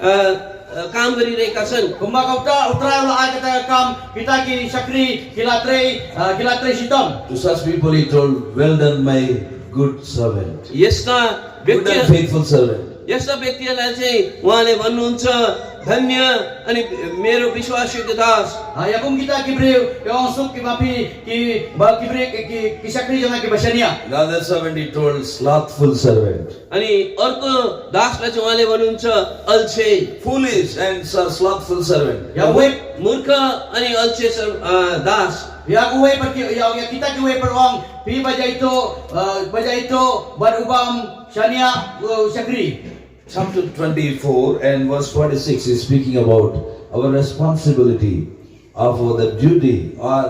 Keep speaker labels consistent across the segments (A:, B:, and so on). A: અ, અ, કામ કરી રહેકા છन्
B: Kumbaga uta utrayo la agata kam kitaki shakri kilatrei ah, kilatrei shitam.
C: To such people he told, Well done, my good servant.
A: यस्ता
C: Good and
A: व्यक्ति
C: faithful servant.
A: यस्ता व्यक्तिहरूलाई चाहिँ उहाँले भन्नुहुन्छ धन्य अनि मेरो विश्वासयोग्य दास
B: Ah, Yakum kita ya kibriu yung sup kibapi ki ba kibri ki- ki ki shakri jana kibashania.
C: The other servant he told, Slothful servant.
A: अनि अर्को दासलाई चाहिँ उहाँले भन्नुहुन्छ अल्छे
C: Foolish and so- slothful servant.
B: Ya wep
A: मूर्ख अनि अल्छे सर- अ, दास
B: ya ku wep perki ya ya kita ki wep perong pi baja itu ah, baja itu barubam shania uh, shakri.
C: Chapter 24 and verse 46 is speaking about our responsibility of our- the duty or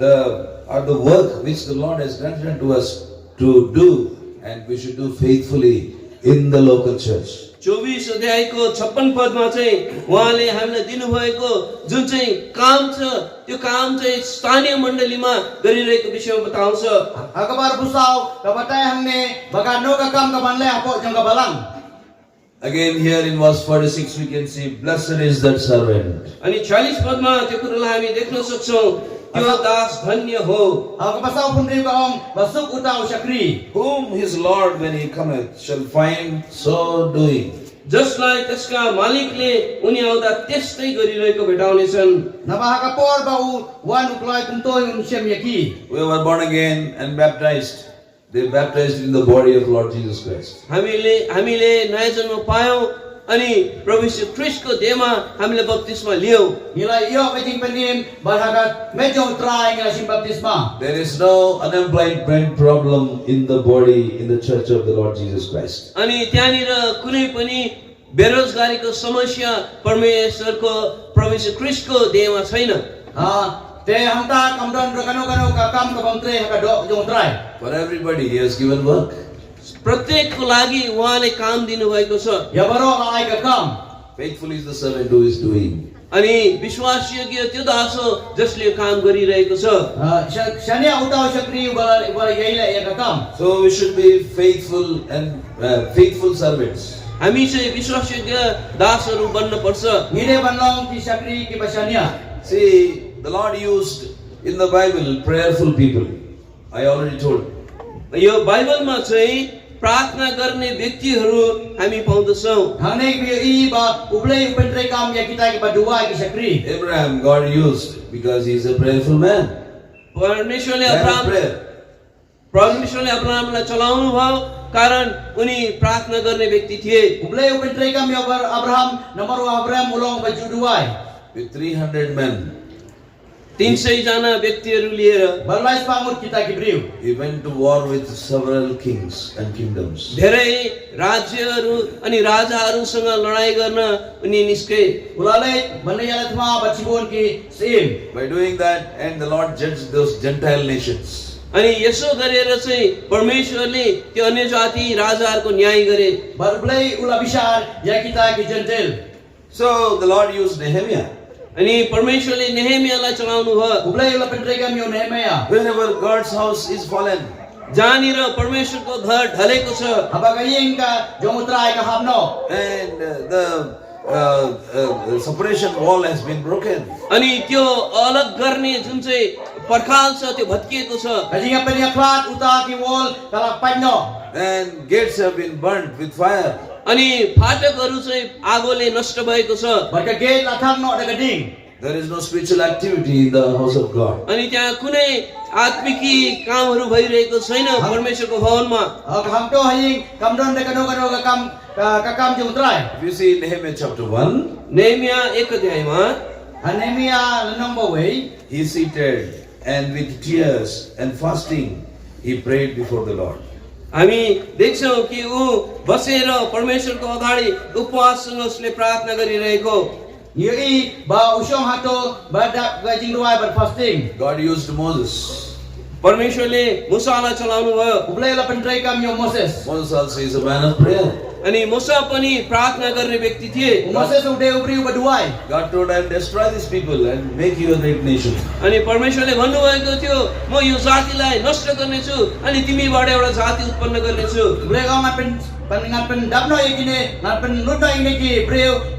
C: the or the work which the Lord has granted unto us to do, and we should do faithfully in the local church.
A: चौबिस अध्यायको छप्पन पदमा चाहिँ उहाँले हामीलाई दिनुभएको जुन चाहिँ काम छ त्यो काम चाहिँ स्थानीय मण्डलीमा गरिरहेको विषयमा बताउँछ
B: Akabar busau kabatai hamne bagano ka kam kabanle apo jang kabalang.
C: Again, here in verse 46, we can see, Blessed is that servant.
A: अनि छ्यालिस पदमा त्यो कुरोलाई हामी देख्न सक्छौँ त्यो दास धन्य हो
B: Ah, kapasau pun riu kaong basuk utau shakri.
C: Whom his Lord, when he cometh, shall find so doing.
A: जसलाई त्यसका मालिकले उनी आउँदा त्यस्तै गरिरहेको भेटाउनेछन्
B: Napakakapor ba u wan uklay kuntoy un siyam yaki.
C: Whoever born again and baptized, they baptized in the body of Lord Jesus Christ.
A: हामीले हामीले नयाँ जन्म पायौँ अनि प्रभु यीशु ख्रिस्टको देहमा हामीले बत्तिसमा लियौँ
B: Nilai iyo kajing panim balhagat medyo utray nila siyang baptisma.
C: There is no unemployment problem in the body, in the church of the Lord Jesus Christ.
A: अनि त्यहाँनिर कुनै पनि बेरोजगारीको समस्या परमेश्वरको प्रभु क्रिस्टको देहमा छैन
B: Ah, te hamta kamdon rakano kano kakam kabang tre hakado yung utray.
C: For everybody, he has given work.
A: प्रत्येकको लागि उहाँले काम दिनुभएको छ
B: Yabaro ka ay kakam.
C: Faithful is the servant who is doing.
A: अनि विश्वासयोग्य त्यो दास हो जसले यो काम गरिरहेको छ
B: Ah, siya siya niya utaw siya kriyo bala bala yaila ya kakam.
C: So we should be faithful and uh, faithful servants.
A: हामी चाहिँ विश्वासयोग्य दासहरू बन्नपर्छ
B: Ngide banlong ki siya kriyo ki basya niya.
C: See, the Lord used in the Bible prayerful people. I already told.
A: यो बाइबलमा चाहिँ प्रार्थना गर्ने व्यक्तिहरू हामी पाउँदछौँ
B: Hangne biyo iba ublay upentre kam ya kita ki baduwa ki siya kriyo.
C: Abraham God used because he is a prayerful man.
A: परमेश्वरले
C: Man of
A: Abraham
C: prayer.
A: परमेश्वरले अब्राहमलाई चलाउनु भयो कारण उनी प्रार्थना गर्ने व्यक्ति थिए
B: Ublay upentre kam ya bar Abraham namaru Abraham ulong bajuduway.
C: With 300 men,
A: तिन सयजना व्यक्तिहरू लिएर
B: Barlais pangut kita kibriu.
C: he went to war with several kings and kingdoms.
A: धेरै राज्यहरू अनि राजाहरूसँग लडाइँ गर्न उनी निस्के
B: Ulalay manayal atma batibon ki sim.
C: By doing that, and the Lord judged those Gentile nations.
A: अनि यसो गरेर चाहिँ परमेश्वरले त्यो अन्य जाति राजाहरूको न्याय गरे
B: Barblay ulabishar ya kita ki gentil.
C: So the Lord used Nehemiah.
A: अनि परमेश्वरले नेहेमियालाई चलाउनु भयो
B: Ublay ulapendrega mi unemaya.
C: Whenever God's house is fallen,
A: जहाँनिर परमेश्वरको घर ढलेको छ
B: Abagayin ka jomutray ka hamno.
C: and uh, the uh, uh, the separation wall has been broken,
A: अनि त्यो अलग गर्ने जुन चाहिँ पर्खाल छ त्यो भत्किएको छ
B: Kajinga penyaklat uta ki wall kalakpan no.
C: and gates have been burnt with fire.
A: अनि फाटकहरू चाहिँ आगोले नष्ट भएको छ
B: Barka gate lathang no dagading.
C: There is no spiritual activity in the house of God.
A: अनि त्यहाँ कुनै आत्मिकी कामहरू भइरहेको छैन परमेश्वरको भवनमा
B: Kahamto haying kamdon dekano kano kakam kakam jomutray.
C: If you see Nehemiah chapter 1,
A: नेमिया एक अध्यायमा
B: Anemia lenong eh. baway.
C: he seated and with tears and fasting he prayed before the Lord.
A: हामी देख्छौँ कि ऊ बसेर परमेश्वरको अगाडि उपवाससँग उसले प्रार्थना गरिरहेको
B: Yui ba usyong hato badak gajing ruay bar fasting.
C: God used Moses.
A: परमेश्वरले मुसालाई चलाउनु भयो
B: Ublay la pendray kam yo Moses.
C: Moses also is a man of prayer.
A: अनि मुसा पनि प्रार्थना गर्ने व्यक्ति थिए
B: Moses ude ubri ubaduay.
C: God told him, Destroy these people and make you a great nation.
A: अनि परमेश्वरले भन्नुभएको थियो म यो जातिलाई नष्ट गर्नेछु अनि तिमीबाट एउटा जाति उत्पन्न गर्नेछु
B: Ublay kam pen pen ngan pen dapno ikine ngan pen lutna ikine ki breu